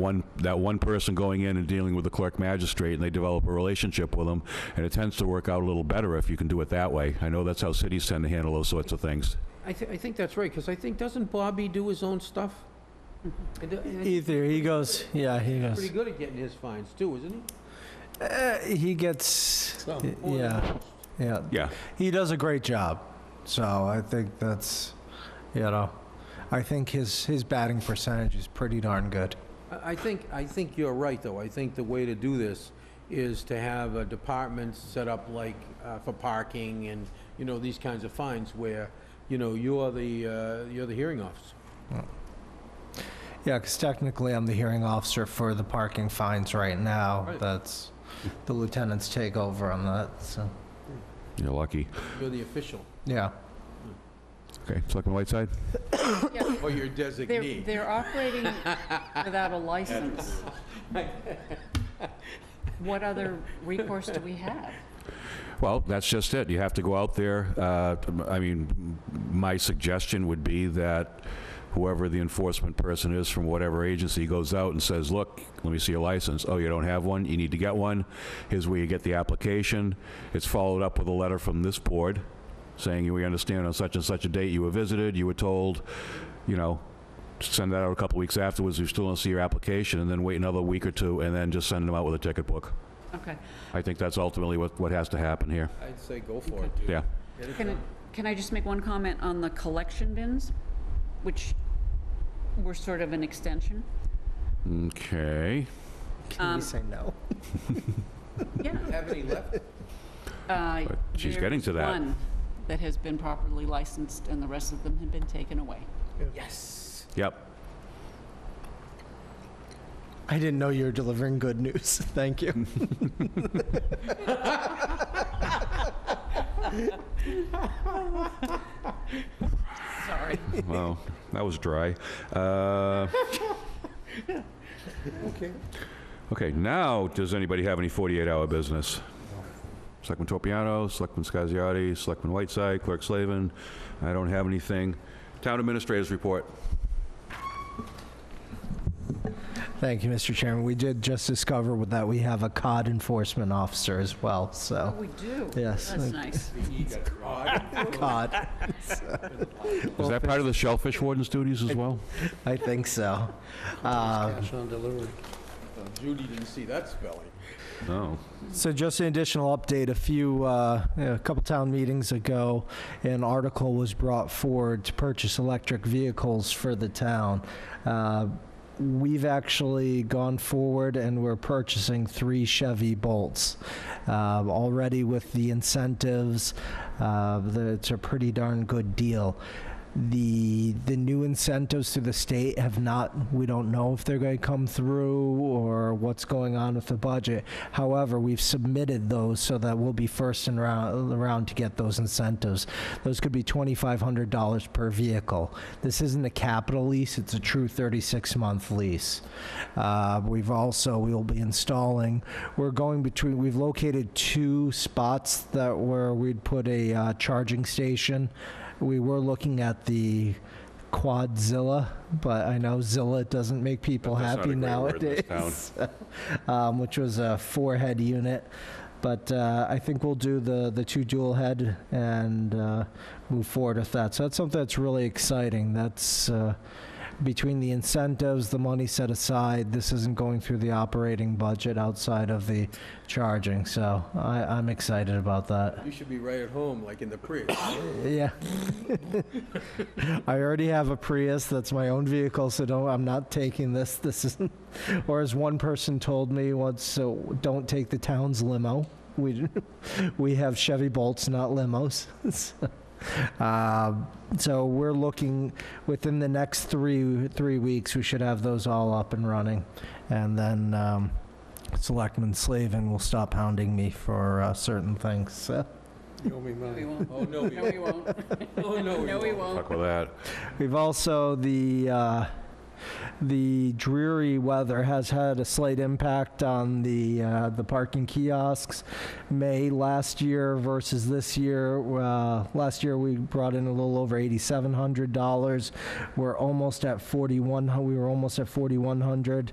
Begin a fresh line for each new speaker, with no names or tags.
one, that one person going in and dealing with the clerk magistrate, and they develop a relationship with them, and it tends to work out a little better if you can do it that way. I know that's how cities tend to handle those sorts of things.
I thi- I think that's right, because I think, doesn't Bobby do his own stuff? I do- and He's
Either he goes, yeah,
pretty
he goes.
good at getting his fines too, isn't he?
Uh, he gets,
Some,
y-
more than
yeah,
most.
yeah.
Yeah.
He does a great job. So I think that's, you know, I think his his batting percentage is pretty darn good.
I I think, I think you're right, though. I think the way to do this is to have a department set up like uh, for parking and, you know, these kinds of fines where, you know, you're the, uh, you're the hearing officer.
Yeah, because technically I'm the hearing officer for the parking fines right now.
Right.
That's the lieutenants take over on that. So
You're lucky.
You're the official,
yeah,
Okay, Selectman Whiteside?
or your
They're,
designee.
they're operating without a license. What other recourse do we have?
Well, that's just it. You have to go out there. uh, I mean, my suggestion would be that whoever the enforcement person is from whatever agency goes out and says, "Look, let me see your license. Oh, you don't have one? You need to get one. Here's where you get the application." It's followed up with a letter from this board saying, "We understand on such and such a date you were visited, you were told, you know, send that out a couple weeks afterwards. We still don't see your application," and then wait another week or two, and then just send them out with a ticket book.
Okay.
I think that's ultimately what what has to happen here.
I'd say go for it, dude.
Yeah.
Get it
Can,
done.
can I just make one comment on the collection bins, which were sort of an extension?
Okay.
can
Um,
we say no?
Yeah.
Have any left?
uh,
But she's
there
getting
is
to that.
one that has been properly licensed and the rest of them have been taken away.
Yes.
Yep.
I didn't know you were delivering good news. Thank you.
Sorry.
Wow, that was dry. Uh,
Okay.
okay, now does anybody have any 48-hour business? Selectman Tropiano, Selectman Scasiotti, Selectman Whiteside, Clerk Slavin. I don't have anything. Town Administrator's Report.
Thank you, Mr. Chairman. We did just discover that we have a COD enforcement officer as well.
Oh,
So
we do?
Yes.
That's nice.
COD,
Is that part of the Shellfish Warden's duties as well?
I think so. Um,
Oh, Judy didn't see that spelling.
Oh,
So just an additional update, a few, uh, a couple town meetings ago, an article was brought forward to purchase electric vehicles for the town. Uh, We've actually gone forward and we're purchasing three Chevy Bolts. Um, Already with the incentives, uh, the- it's a pretty darn good deal. The, the new incentives to the state have not, we don't know if they're going to come through or what's going on with the budget. However, we've submitted those so that we'll be first in round, around to get those incentives. Those could be $2,500 per vehicle. This isn't a capital lease, it's a true 36-month lease. Uh, We've also, we will be installing, we're going between, we've located two spots that where we'd put a uh, charging station. We were looking at the Quadzilla, but I know Zilla doesn't make people
That's not
happy
a great word in this
nowadays
town.
um, which was a four head unit. But uh, I think we'll do the, the two dual head and uh, move forward with that. So that's something that's really exciting. That's uh, between the incentives, the money set aside, this isn't going through the operating budget outside of the charging. So I, I'm excited about that.
You should be right at home, like in the Prius.
Yeah. I already have a Prius. That's my own vehicle, so don't, I'm not taking this. This is, or as one person told me once, so don't take the town's limo. We, we have Chevy Bolts, not limos. Um, So we're looking, within the next three, three weeks, we should have those all up and running. And then um, Selectman Slavin will stop hounding me for uh, certain things, so.
No, we won't.
Oh, no, we
No, we
won't.
won't.
Oh, no, we
No, we
won't.
won't.
fuck with that.
We've also the uh, the dreary weather has had a slight impact on the uh, the parking kiosks. May last year versus this year. Uh, last year we brought in a little over eighty seven hundred dollars. We're almost at forty one. We were almost at forty one hundred.